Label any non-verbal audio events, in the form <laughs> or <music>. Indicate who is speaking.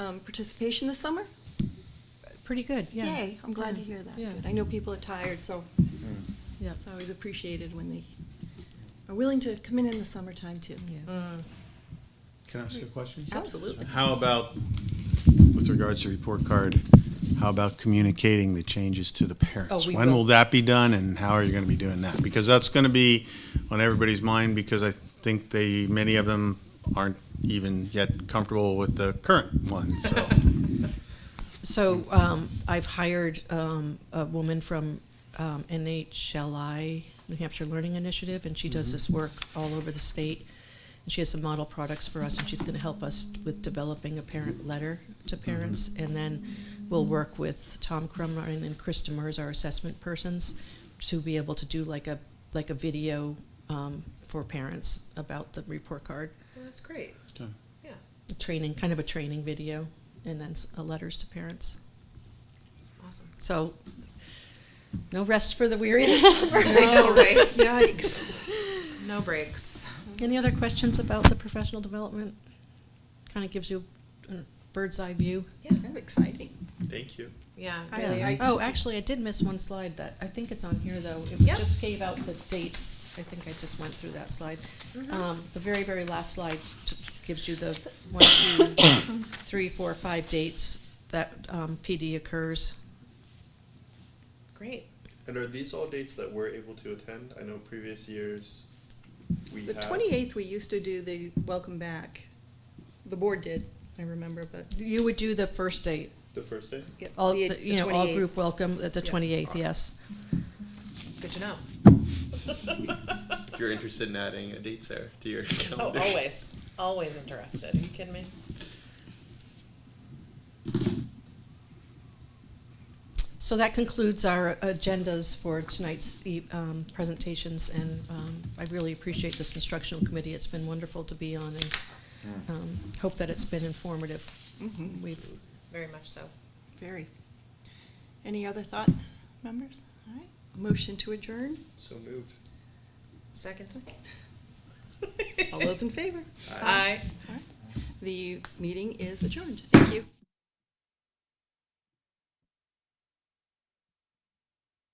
Speaker 1: um, participation this summer?
Speaker 2: Pretty good, yeah.
Speaker 1: Yay, I'm glad to
Speaker 2: Yeah,
Speaker 1: hear that.
Speaker 2: Yeah,
Speaker 1: Good. I know people are tired, so
Speaker 2: yeah,
Speaker 1: it's always appreciated when they are willing to come in in the summertime, too.
Speaker 2: yeah.
Speaker 3: Mm.
Speaker 4: Can I ask you a question?
Speaker 1: Absolutely.
Speaker 4: How about, with regards to report card, how about communicating the changes to the
Speaker 3: Oh,
Speaker 4: parents?
Speaker 3: we
Speaker 4: When
Speaker 3: will.
Speaker 4: will that be done and how are you going to be doing that? Because that's going to be on everybody's mind because I think they, many of them aren't even yet comfortable with the current one, so.
Speaker 2: So um, I've hired um, a woman from um, NHLI, New Hampshire Learning Initiative, and she does this work all over the state. And she has some model products for us, and she's going to help us with developing a parent letter to parents. And then we'll work with Tom Crumrine and Chris Demers, our assessment persons, to be able to do like a like a video um, for parents about the report card
Speaker 3: Well, that's great.
Speaker 4: Okay.
Speaker 3: Yeah.
Speaker 2: training, kind of a training video, and then s- uh, letters to parents.
Speaker 3: <laughs> Awesome.
Speaker 2: So, no rest for the weary this summer.
Speaker 3: know, right?
Speaker 1: Yikes.
Speaker 3: <laughs> No breaks.
Speaker 2: Any other questions about the professional development? Kind of gives you a bird's eye view.
Speaker 3: Yeah.
Speaker 1: Kind of exciting.
Speaker 4: Thank you.
Speaker 3: Yeah.
Speaker 1: I-
Speaker 2: Yeah.
Speaker 1: I-
Speaker 2: oh, actually, I did miss one slide that I think it's on here though. It
Speaker 3: Yep.
Speaker 2: just gave out the dates. I think I just went through that slide.
Speaker 3: Mhm.
Speaker 2: Um, the very, very last slide t- gives you the one, two, <coughs> three, four, five dates that um, PD occurs.
Speaker 3: Great.
Speaker 5: And are these all dates that we're able to attend? I know previous years we
Speaker 1: The
Speaker 5: had-
Speaker 1: 28th, we used to do the welcome back. The board did, I remember, but.
Speaker 2: You would do the first date.
Speaker 5: the first day.
Speaker 1: yeah,
Speaker 2: All,
Speaker 1: the-
Speaker 2: the-
Speaker 1: the
Speaker 2: you know, all
Speaker 1: 28th.
Speaker 2: group welcome at the
Speaker 1: Yeah.
Speaker 2: twenty-eighth, yes.
Speaker 3: Good to know.
Speaker 5: <laughs> If you're interested in adding a date, Sarah, to your
Speaker 3: Oh,
Speaker 5: calendar.
Speaker 3: always, always interested. Are you kidding me?
Speaker 2: So that concludes our agendas for tonight's e- um, presentations, and um, I really appreciate this instructional committee. It's been wonderful to be on, and um, hope that it's been informative.
Speaker 1: Mhm,
Speaker 2: We've,
Speaker 3: Very much so.
Speaker 1: Very. Any other thoughts, members? All right. Motion to <laughs> adjourn?
Speaker 5: So moved.
Speaker 3: Second.
Speaker 1: All those in favor?
Speaker 3: Aye.
Speaker 1: All right. The meeting is adjourned. Thank you.